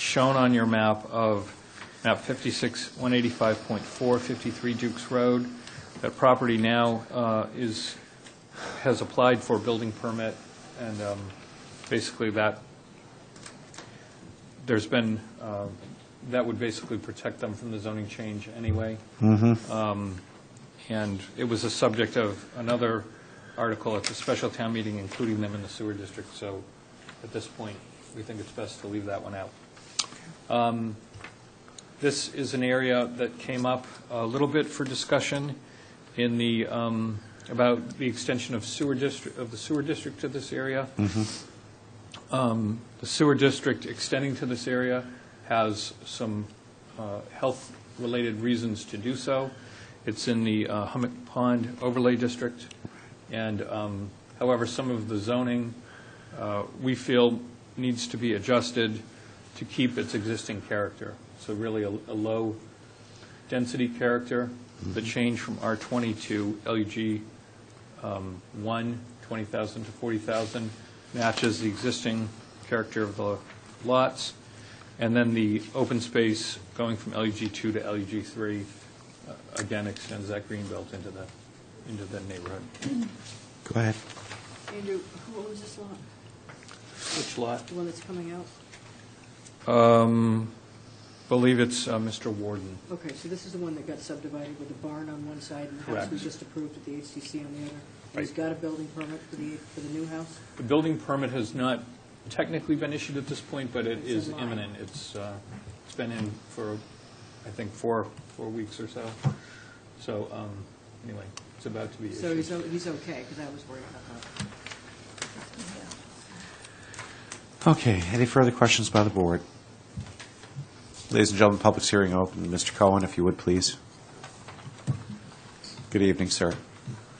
shown on your map of map 56, 185.4, 53 Dukes Road. That property now uh, is, has applied for building permit, and um, basically that, there's been, uh, that would basically protect them from the zoning change anyway. Um, And it was a subject of another article at the special town meeting, including them in the sewer district, so at this point, we think it's best to leave that one out. Um, This is an area that came up a little bit for discussion in the, um, about the extension of sewer district, of the sewer district to this area. Um, The sewer district extending to this area has some uh, health-related reasons to do so. It's in the uh, Hummock Pond Overlay District, and um, however, some of the zoning, uh, we feel, needs to be adjusted to keep its existing character. So really, a a low-density character, the change from R20 to um, LUG 1, 20,000 to 40,000, matches the existing character of the lots. And then the open space going from LUG 2 to LUG 3, uh, again, extends that green belt into the, into the neighborhood. Go ahead. Andrew, who owns this lot? Which lot? The one that's coming out? Believe it's uh, Mr. Warden. Okay, so this is the one that got subdivided with the barn on one side and the house Correct. we just approved at the HCC on the other. And he's Right. got a building permit for the, for the new house? The building permit has not technically been issued at this point, but it It's is in line. imminent. It's, uh, it's been in for, I think, four, four weeks or so. So, um, anyway, it's about to be So he's, issued. o- he's okay, because I was worried about that. Okay, any further questions by the board? Ladies and gentlemen, public's hearing open. Mr. Cohen, if you would, please. Good evening, sir.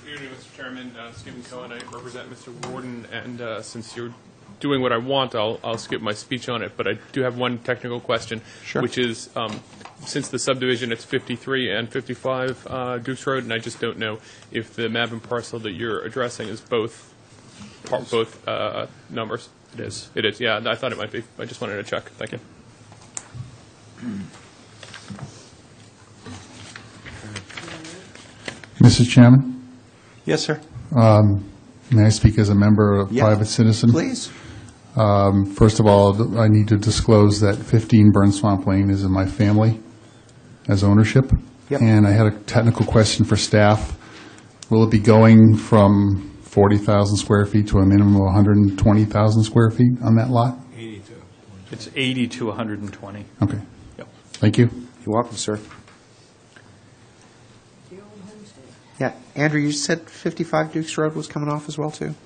Good evening, Mr. Chairman. Uh, Stephen Cohen, I represent Mr. Warden, and uh, since you're doing what I want, I'll I'll skip my speech on it, but I do have one technical question. Sure. Which is, um, since the subdivision, it's 53 and 55 uh, Dukes Road, and I just don't know if the map and parcel that you're addressing is both, par- both uh, numbers. It is. It is, yeah, I thought it might be. I just wanted to check. Thank you. Mr. Chairman, Yes, sir. may I speak as a member of Yeah. private citizen? Please. First of all, th- I need to disclose that 15 Burn Swamp Lane is in my family as ownership. Yep. And I had a technical question for staff. Will it be going from 40,000 square feet to a minimum of 120,000 square feet on that lot? It's 80 to 120. Okay, Yep. thank you. You're welcome, sir. The old homestead. Yeah, Andrew, you said 55 Dukes Road was coming off as well, too?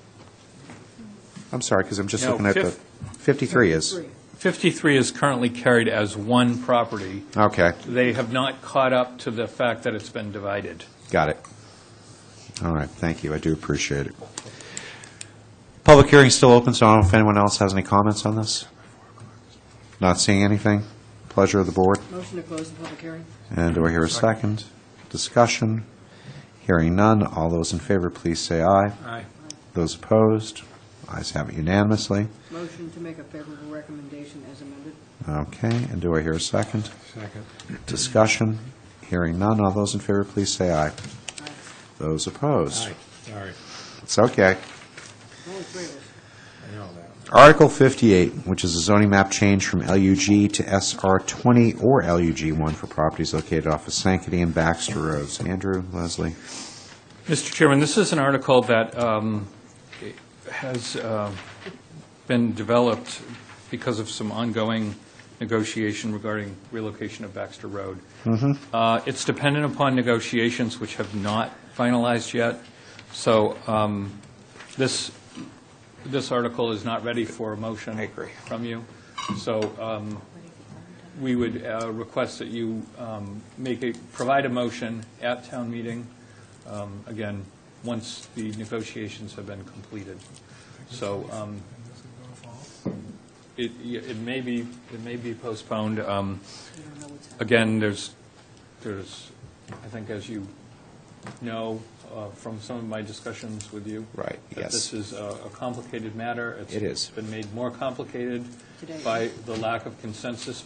I'm sorry, because I'm just No, looking at the, fif- 53 is, Three. 53 is currently carried as one property. okay, They have not caught up to the fact that it's been divided. got it. All right, thank you, I do appreciate it. Public hearing's still open, so I don't know if anyone else has any comments on this? Not seeing anything? Pleasure of the board. Motion to close the public hearing? And do I hear a second? Discussion? Hearing none, all those in favor, please say aye. Aye. Those opposed? Ayes have it unanimously. Motion to make a favorable recommendation as amended? Okay, and do I hear a second? Second. Discussion? Hearing none, all those in favor, please say aye. Aye. Those opposed? Sorry, It's okay. Only three of us. I know that. Article 58, which is a zoning map change from LUG to SR 20 or LUG 1 for properties located off of Sankaty and Baxter Roads. Andrew, Leslie? Mr. Chairman, this is an article that um, has uh, been developed because of some ongoing negotiation regarding relocation of Baxter Road. Uh, It's dependent upon negotiations which have not finalized yet, so um, this, this article is not ready for a motion. From you. So um, we would uh, request that you um, make a, provide a motion at town meeting, um, again, once the negotiations have been completed. So um, it, it may be, it may be postponed. Um, We don't know what's happening. Again, there's, there's, I think as you know, uh, from some of my discussions with you. Right, That yes. this is a a complicated matter. It is. It's been made more complicated Today. by the lack of consensus